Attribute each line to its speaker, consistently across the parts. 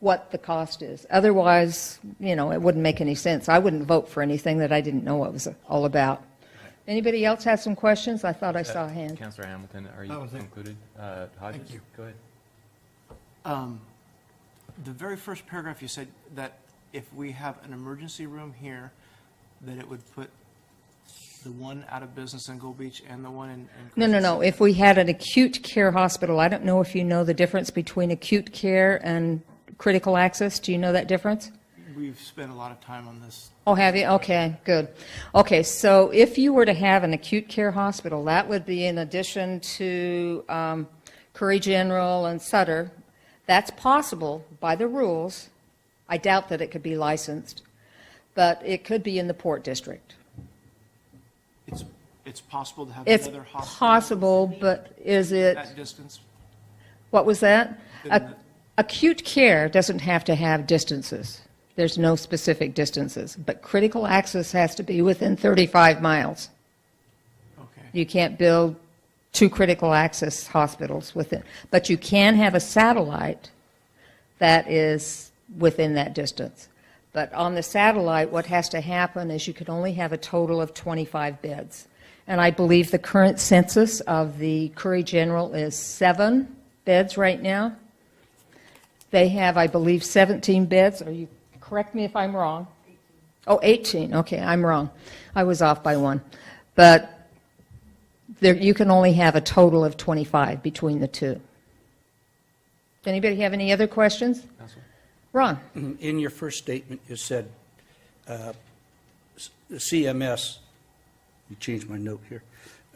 Speaker 1: what the cost is. Otherwise, you know, it wouldn't make any sense. I wouldn't vote for anything that I didn't know what was all about. Anybody else have some questions? I thought I saw a hand.
Speaker 2: Uh, Counselor Hamilton, are you
Speaker 3: That was it.
Speaker 2: included? Uh, Hodges?
Speaker 3: you.
Speaker 2: Go ahead.
Speaker 4: Um, The very first paragraph, you said that if we have an emergency room here, that it would put the one out of business in Gold Beach and the one in. in
Speaker 1: No, no,
Speaker 4: Crescent
Speaker 1: no. If we had an acute care hospital, I don't know if you know the difference between acute care and critical access. Do you know that difference?
Speaker 4: City. We've spent a lot of time on this.
Speaker 1: Oh, have you? Okay, good. Okay, so if you were to have an acute care hospital, that would be in addition to um, Curry General and Sutter. That's possible by the rules. I doubt that it could be licensed, but it could be in the Port District.
Speaker 4: It's, it's possible to have
Speaker 1: It's
Speaker 4: another hospital
Speaker 1: possible, but is it?
Speaker 4: at distance.
Speaker 1: What was that?
Speaker 4: Didn't
Speaker 1: Ac-
Speaker 4: it-
Speaker 1: Acute care doesn't have to have distances. There's no specific distances, but critical access has to be within 35 miles.
Speaker 4: Okay,
Speaker 1: You can't build two critical access hospitals within, but you can have a satellite that is within that distance. But on the satellite, what has to happen is you can only have a total of 25 beds. And I believe the current census of the Curry General is seven beds right now. They have, I believe, 17 beds, or you, correct me if I'm wrong. Oh, 18, okay, I'm wrong. I was off by one. But there, you can only have a total of 25 between the two. Does anybody have any other questions?
Speaker 2: Counselor?
Speaker 1: Ron?
Speaker 5: In your first statement, you said uh, s- the CMS, you changed my note here,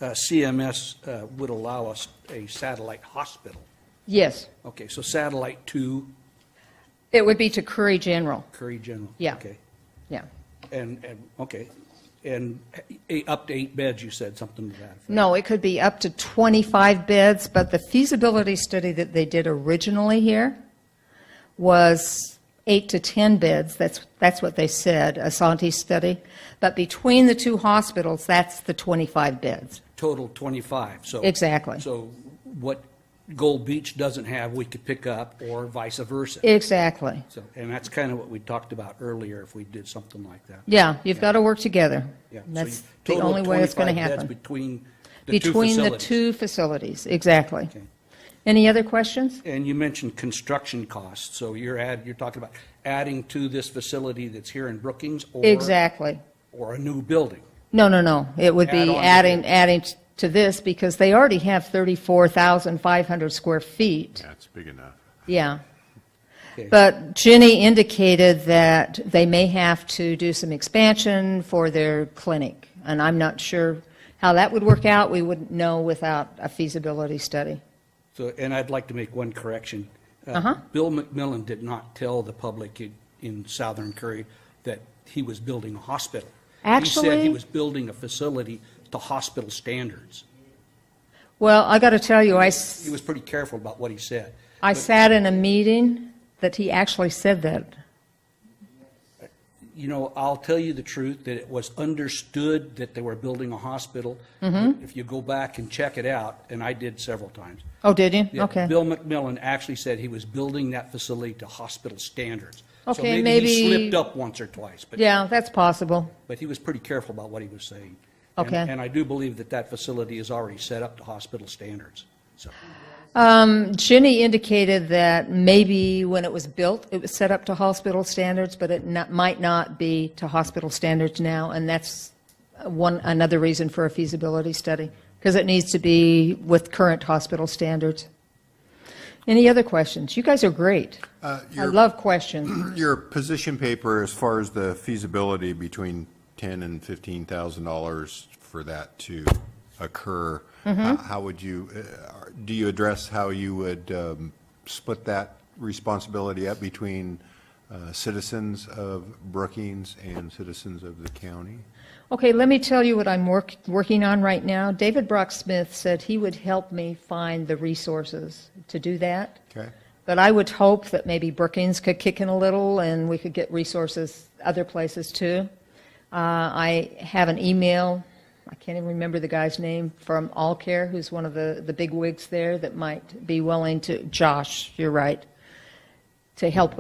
Speaker 5: Uh, CMS uh, would allow us a satellite hospital.
Speaker 1: Yes.
Speaker 5: Okay, so satellite to
Speaker 1: It would be to Curry General,
Speaker 5: Curry General.
Speaker 1: Yeah.
Speaker 5: Okay,
Speaker 1: yeah.
Speaker 5: and, and, okay, and eh, up to eight beds, you said, something to that effect.
Speaker 1: No, it could be up to 25 beds, but the feasibility study that they did originally here was eight to 10 beds. That's, that's what they said, Asante study. But between the two hospitals, that's the 25 beds.
Speaker 5: Total 25, so.
Speaker 1: Exactly.
Speaker 5: So what Gold Beach doesn't have, we could pick up, or vice versa.
Speaker 1: Exactly.
Speaker 5: So, and that's kind of what we talked about earlier, if we did something like that.
Speaker 1: Yeah, you've got to work together.
Speaker 5: Yeah, so
Speaker 1: That's
Speaker 5: you-
Speaker 1: the
Speaker 5: total of
Speaker 1: only way it's going to
Speaker 5: 25 beds
Speaker 1: happen.
Speaker 5: Between the two
Speaker 1: Between the
Speaker 5: facilities.
Speaker 1: two facilities, exactly.
Speaker 5: Okay.
Speaker 1: Any other questions?
Speaker 5: And you mentioned construction costs, so you're add, you're talking about adding to this facility that's here in Brookings or.
Speaker 1: Exactly.
Speaker 5: Or a new building.
Speaker 1: No, no, no. It would
Speaker 5: Add on
Speaker 1: be
Speaker 5: to
Speaker 1: adding,
Speaker 5: it.
Speaker 1: adding to this because they already have 34,500 square feet.
Speaker 6: That's big enough.
Speaker 1: Yeah.
Speaker 5: Okay.
Speaker 1: But Jenny indicated that they may have to do some expansion for their clinic. And I'm not sure how that would work out. We wouldn't know without a feasibility study.
Speaker 5: So, and I'd like to make one correction. Uh-huh. Bill McMillan did not tell the public in- in Southern Curry that he was building a hospital. He said
Speaker 1: Actually-
Speaker 5: he was building a facility to hospital standards.
Speaker 1: Well, I got to tell you, I, s-
Speaker 5: He was pretty careful about what he said.
Speaker 1: I sat in a meeting that he actually said that.
Speaker 5: You know, I'll tell you the truth, that it was understood that they were building a hospital.
Speaker 1: Mm-hmm.
Speaker 5: If you go back and check it out, and I did several times.
Speaker 1: Oh, did you?
Speaker 5: that
Speaker 1: Okay.
Speaker 5: Bill McMillan actually said he was building that facility to hospital standards. So
Speaker 1: Okay,
Speaker 5: he
Speaker 1: maybe-
Speaker 5: slipped up once or twice, but,
Speaker 1: Yeah, that's possible.
Speaker 5: but he was pretty careful about what he was saying. And-
Speaker 1: Okay.
Speaker 5: And I do believe that that facility is already set up to hospital standards, so.
Speaker 1: Ginny indicated that maybe when it was built, it was set up to hospital standards, but it not, might not be to hospital standards now, and that's one, another reason for a feasibility study, because it needs to be with current hospital standards. Any other questions? You guys are great. I
Speaker 6: Uh, your-
Speaker 1: love questions.
Speaker 6: Your position paper, as far as the feasibility between ten and fifteen thousand dollars for that to occur,
Speaker 1: Mm-hmm.
Speaker 6: h- how would you, uh, are- do you address how you would um, split that responsibility up between uh, citizens of Brookings and citizens of the county?
Speaker 1: Okay, let me tell you what I'm work, working on right now. David Brock Smith said he would help me find the resources to do that.
Speaker 6: Okay?
Speaker 1: But I would hope that maybe Brookings could kick in a little and we could get resources other places too. Uh, I have an email, I can't even remember the guy's name, from Allcare, who's one of the, the big wigs there that might be willing to, Josh, you're right, to help